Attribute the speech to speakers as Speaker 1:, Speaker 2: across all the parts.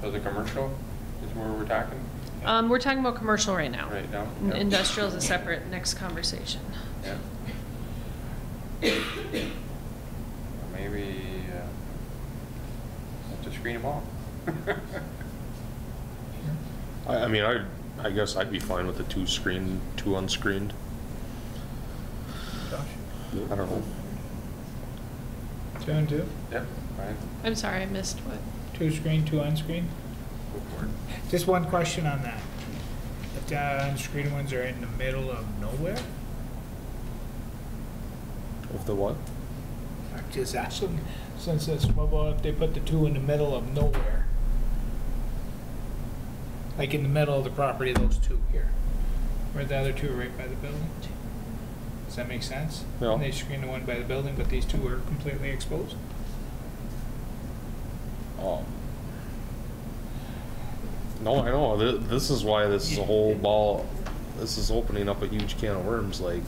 Speaker 1: So the commercial is where we're talking
Speaker 2: Um, we're talking about commercial right now.
Speaker 1: right now?
Speaker 2: N-
Speaker 1: Yeah.
Speaker 2: Industrial is a separate next conversation.
Speaker 1: Yeah. Maybe, uh, have to screen them all.
Speaker 3: I, I mean, I, I guess I'd be fine with the two screened, two unscreened.
Speaker 4: Josh?
Speaker 3: I don't know.
Speaker 4: Two and two?
Speaker 1: Yep, fine.
Speaker 2: I'm sorry, I missed what.
Speaker 4: Two screen, two unscreen?
Speaker 1: Go for it.
Speaker 4: Just one question on that. The unscreened ones are in the middle of nowhere?
Speaker 3: Of the what?
Speaker 4: I'm just asking, since it's, well, well, if they put the two in the middle of nowhere? Like in the middle of the property, those two here, where the other two are right by the building? Does that make sense?
Speaker 3: No.
Speaker 4: And they screen the one by the building, but these two are completely exposed?
Speaker 3: Um, no, I know. Th- This is why this is a whole ball. This is opening up a huge can of worms. Like,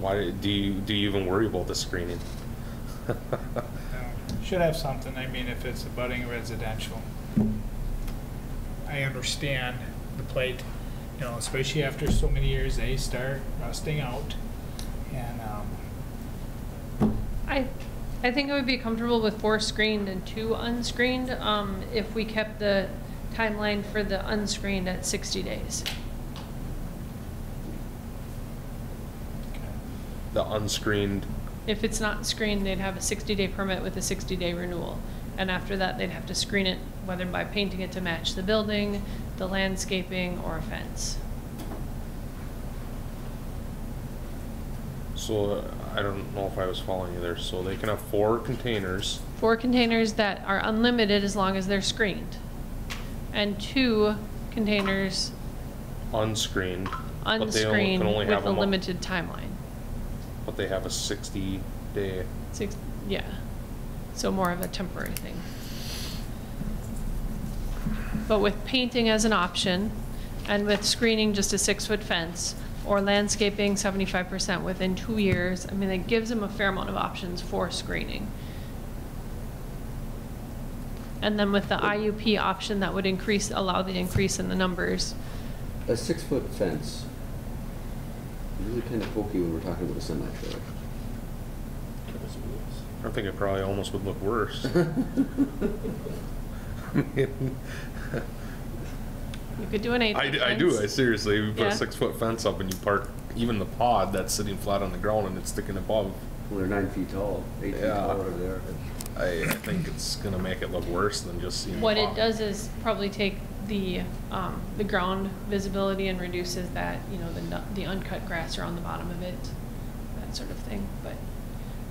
Speaker 3: why do you do you even worry about the screening?
Speaker 4: No, Should have something, I mean, if it's a budding residential. I understand the plate, you know, especially after so many years, they start rusting out. And, um,
Speaker 2: I, I think I would be comfortable with four screened and two unscreened, um, if we kept the timeline for the unscreened at sixty days.
Speaker 3: the unscreened.
Speaker 2: If it's not screened, they'd have a sixty-day permit with a sixty-day renewal. And after that, they'd have to screen it, whether by painting it to match the building, the landscaping, or a fence.
Speaker 3: So uh, I don't know if I was following you there. So they can have four containers.
Speaker 2: Four containers that are unlimited as long as they're screened. And two containers
Speaker 3: unscreened. but they only-
Speaker 2: unscreened
Speaker 3: can only have
Speaker 2: with a
Speaker 3: 'em up-
Speaker 2: limited timeline.
Speaker 3: But they have a sixty day,
Speaker 2: Six, yeah. So more of a temporary thing. But with painting as an option and with screening just a six-foot fence or landscaping seventy-five percent within two years, I mean, it gives them a fair amount of options for screening. And then with the IUP option, that would increase, allow the increase in the numbers.
Speaker 5: A six-foot fence. Really kind of pokey when we're talking about a semi-trailer.
Speaker 3: I think it probably almost would look worse. I mean,
Speaker 2: You could do an eight-foot
Speaker 3: I, d-
Speaker 2: fence.
Speaker 3: I do, I seriously, we put
Speaker 2: Yeah.
Speaker 3: a six foot fence up and you park even the pod that's sitting flat on the ground and it's sticking above.
Speaker 5: Well, they're nine feet tall, eight feet
Speaker 3: Yeah.
Speaker 5: tall, whatever they are.
Speaker 3: I, I think it's gonna make it look worse than just seeing.
Speaker 2: What it
Speaker 3: pod.
Speaker 2: does is probably take the, um, the ground visibility and reduces that, you know, the, nu- the uncut grass around the bottom of it, that sort of thing, but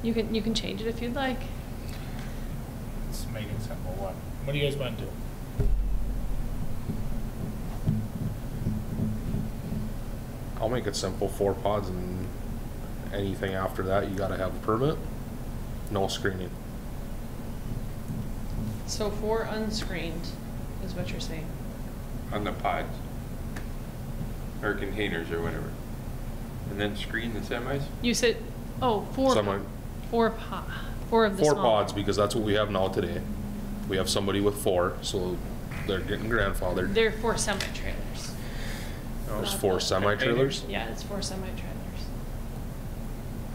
Speaker 2: you can, you can change it if you'd like.
Speaker 4: it's making simple, what, what do you guys want to do?
Speaker 3: I'll make it simple, four pods and anything after that, you gotta have a permit, no screening.
Speaker 2: So four unscreened is what you're saying.
Speaker 1: On the pods. Or containers or whatever. And then screen the semis?
Speaker 2: You said, oh, four,
Speaker 3: Semi.
Speaker 2: four po, four of the
Speaker 3: Four
Speaker 2: small.
Speaker 3: pods, because that's what we have now today. We have somebody with four, so they're getting grandfathered.
Speaker 2: They're four semi-trailers.
Speaker 3: There's Oh, four semi-trailers?
Speaker 2: Yeah, it's four semi-trailers.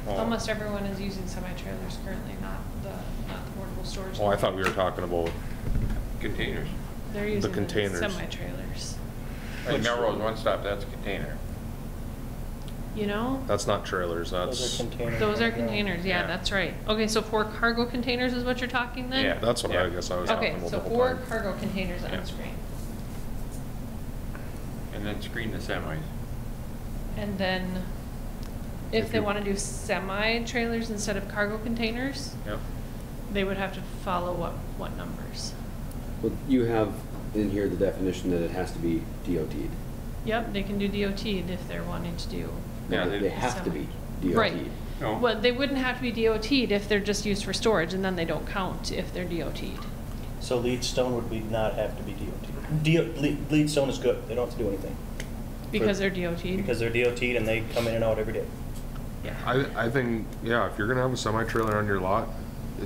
Speaker 3: Oh.
Speaker 2: Almost everyone is using semi-trailers currently, not the, not the portable storage.
Speaker 3: Oh, I thought we were talking about,
Speaker 1: Containers.
Speaker 2: They're
Speaker 3: The
Speaker 2: using them as
Speaker 3: containers.
Speaker 2: semi-trailers.
Speaker 1: Like Melrose One Stop, that's a container.
Speaker 2: You know,
Speaker 3: that's not trailers, that's,
Speaker 2: those are containers, yeah,
Speaker 1: Yeah.
Speaker 2: that's right. Okay, so four cargo containers is what you're talking then?
Speaker 1: Yeah.
Speaker 3: that's what I guess I was talking
Speaker 2: Okay,
Speaker 3: about the
Speaker 2: so
Speaker 3: whole
Speaker 2: four
Speaker 3: time.
Speaker 2: cargo containers
Speaker 1: Yeah.
Speaker 2: on screen.
Speaker 1: And then screen the semis.
Speaker 2: And then
Speaker 3: If
Speaker 2: if they
Speaker 3: you-
Speaker 2: want to do semi-trailers instead of cargo containers,
Speaker 1: Yep.
Speaker 2: they would have to follow what, what numbers?
Speaker 5: Well, you have in here the definition that it has to be DOT'd.
Speaker 2: Yep, they can do DOT if they're wanting to do.
Speaker 1: Yeah,
Speaker 5: No,
Speaker 1: they-
Speaker 5: They have to be DOT'd.
Speaker 2: Right.
Speaker 1: No.
Speaker 2: Well, they wouldn't have to be DOT'd if they're just used for storage and then they don't count if they're DOT'd.
Speaker 6: So lead stone would be not have to be DOT. DO- lead, lead stone is good, they don't have to do anything,
Speaker 2: Because they're DOT'd?
Speaker 6: because they're DOT'd and they come in and out every day.
Speaker 2: Yeah.
Speaker 3: I, I think, yeah, if you're gonna have a semi-trailer on your lot,